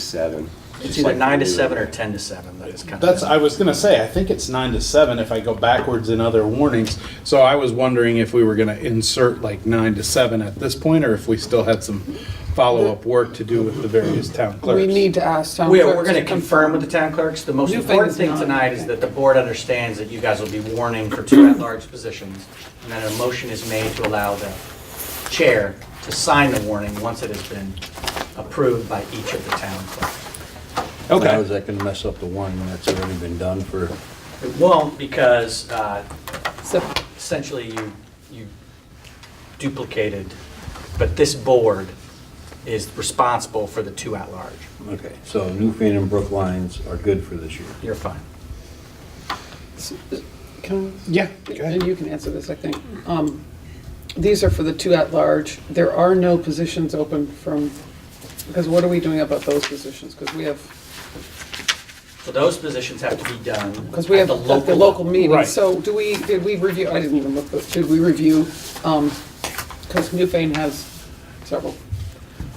seven. It's just either like nine to we were seven or there. ten to seven, that is kind of. That's, I was gonna say, I think it's nine to seven if I go backwards in other warnings. So I was wondering if we were gonna insert like nine to seven at this point, or if we still had some follow-up work to do with the various town We clerks. need to ask town We are, clerks we're gonna to confirm with the town clerks. The most New important things thing not- tonight is that the board understands that you guys will be warning for two at-large positions, and that a motion is made to allow the chair to sign the warning once it has been approved by each of the town clerks. Okay. How is that gonna mess up the one that's already been done for, It won't, because uh, So, essentially you, you duplicated, but this board is responsible for the two at-large. okay, so Newfane and Brook lines are good for this year. You're fine. can, Yeah, go and ahead. you can answer this, I think. Um, These are for the two at-large. There are no positions open from, because what are we doing about those positions? Because we have, So those positions have to be done. because we have the at the local meeting. Right. So do we, did we review, I didn't even look, but did we review, because Newfane has several.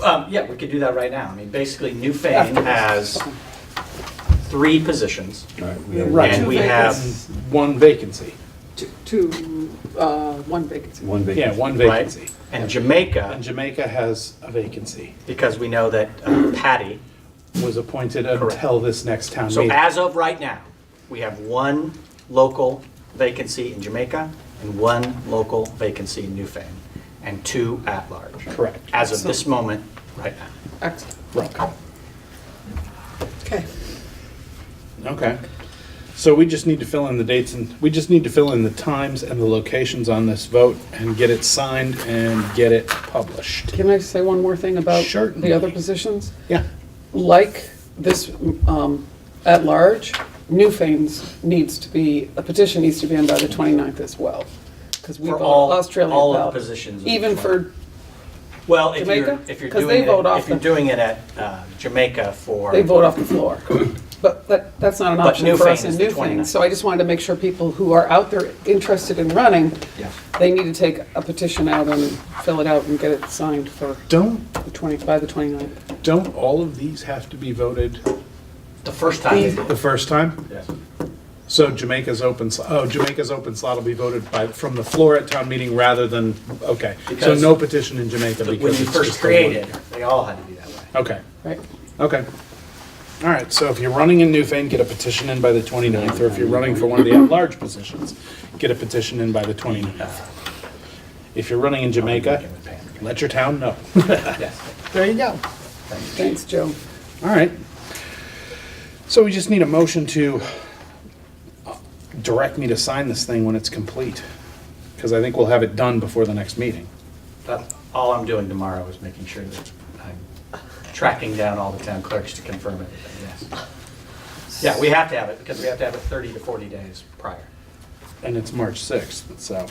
Um, yeah, we could do that right now. I mean, basically, New Fane After this. has three positions. All right, we have Right. And we have, One vacancy. Two- Two, uh, one vacancy. One Yeah, vacancy. one right, vacancy. and And Jamaica, Jamaica has a vacancy, because we know that uh, Patty, was appointed Correct. until this next town so meeting. as of right now, we have one local vacancy in Jamaica and one local vacancy in New Fane, and two at-large. Correct. As of this moment, right now. Excellent. Right. Okay. Okay. So we just need to fill in the dates and, we just need to fill in the times and the locations on this vote and get it signed and get it published. Can I say one more thing about Certainly. the other positions? Yeah. like this um, at large, Newfane's needs to be, a petition needs to be in by the 29th as well. Because we For vote all- Australia all of the out. positions of the Even for, Well, if you're, Jamaica? if you're 'Cause doing they it, vote off if you're the- doing it at uh, Jamaica for. they vote off the floor. But that, that's not an But option for us Newfane in is the Newfane. 29th. So I just wanted to make sure people who are out there interested in running, Yeah. they need to take a petition out and fill it out and get it signed for Don't, the 20, by the 29th. don't all of these have to be voted The first time they the vote. first time? So Jamaica's open, sl- oh, Jamaica's open slot will be voted by, from the floor at town meeting rather than, okay. So Because- no petition in Jamaica When because you it's first just the one. created, they all had to be that way. Okay, Right? okay. All right, so if you're running in Newfane, get a petition in by the 29th, or if you're running for one of the at-large positions, get a petition in by the 29th. If you're running in Jamaica, let your town know. There you go. Thanks, Joe. All right. So we just need a motion to direct me to sign this thing when it's complete, because I think we'll have it done before the next meeting. That's all I'm doing tomorrow is making sure that I'm tracking down all the town clerks to confirm everything, yes. Yeah, we have to have it, because we have to have it 30 to 40 days prior. And it's March 6th, so.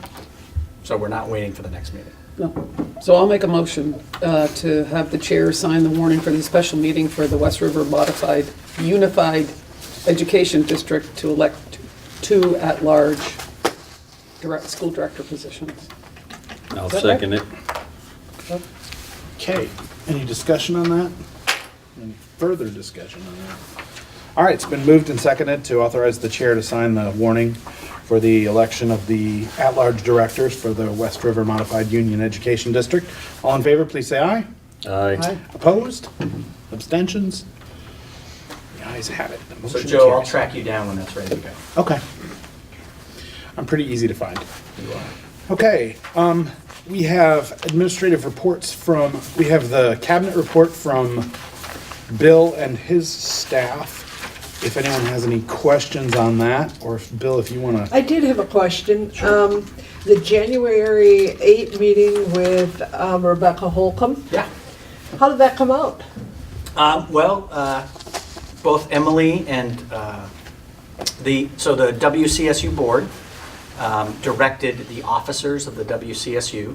So we're not waiting for the next meeting. No. So I'll make a motion uh, to have the chair sign the warning for the special meeting for the West River Modified Unified Education District to elect two at-large direct, school director positions. I'll Is that right? second it. Okay, any discussion on that? Any further discussion on that? All right, it's been moved and seconded to authorize the chair to sign the warning for the election of the at-large directors for the West River Modified Union Education District. All in favor, please say aye. Aye. Opposed? Abstentions? The ayes have it. The So motion Joe, I'll carries. track you down when that's ready to go. Okay. I'm pretty easy to find. Okay, um, we have administrative reports from, we have the cabinet report from Bill and his staff. If anyone has any questions on that, or if, Bill, if you wanna, I did have a question. Um, The January 8 meeting with um, Rebecca Holcomb, Yeah. how did that come out? Um, Well, uh, both Emily and uh, the, so the WCSU board um, directed the officers of the WCSU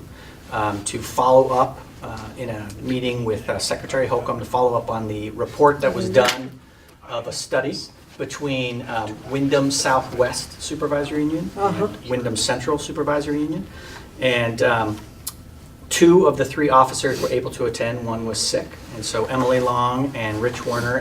um, to follow up uh, in a meeting with uh, Secretary Holcomb to follow up on the report that was done of a study between um, Wyndham Southwest Supervisor Union and Wyndham Central Supervisor Union. And um, Two of the three officers were able to attend, one was sick. And so Emily Long and Rich Warner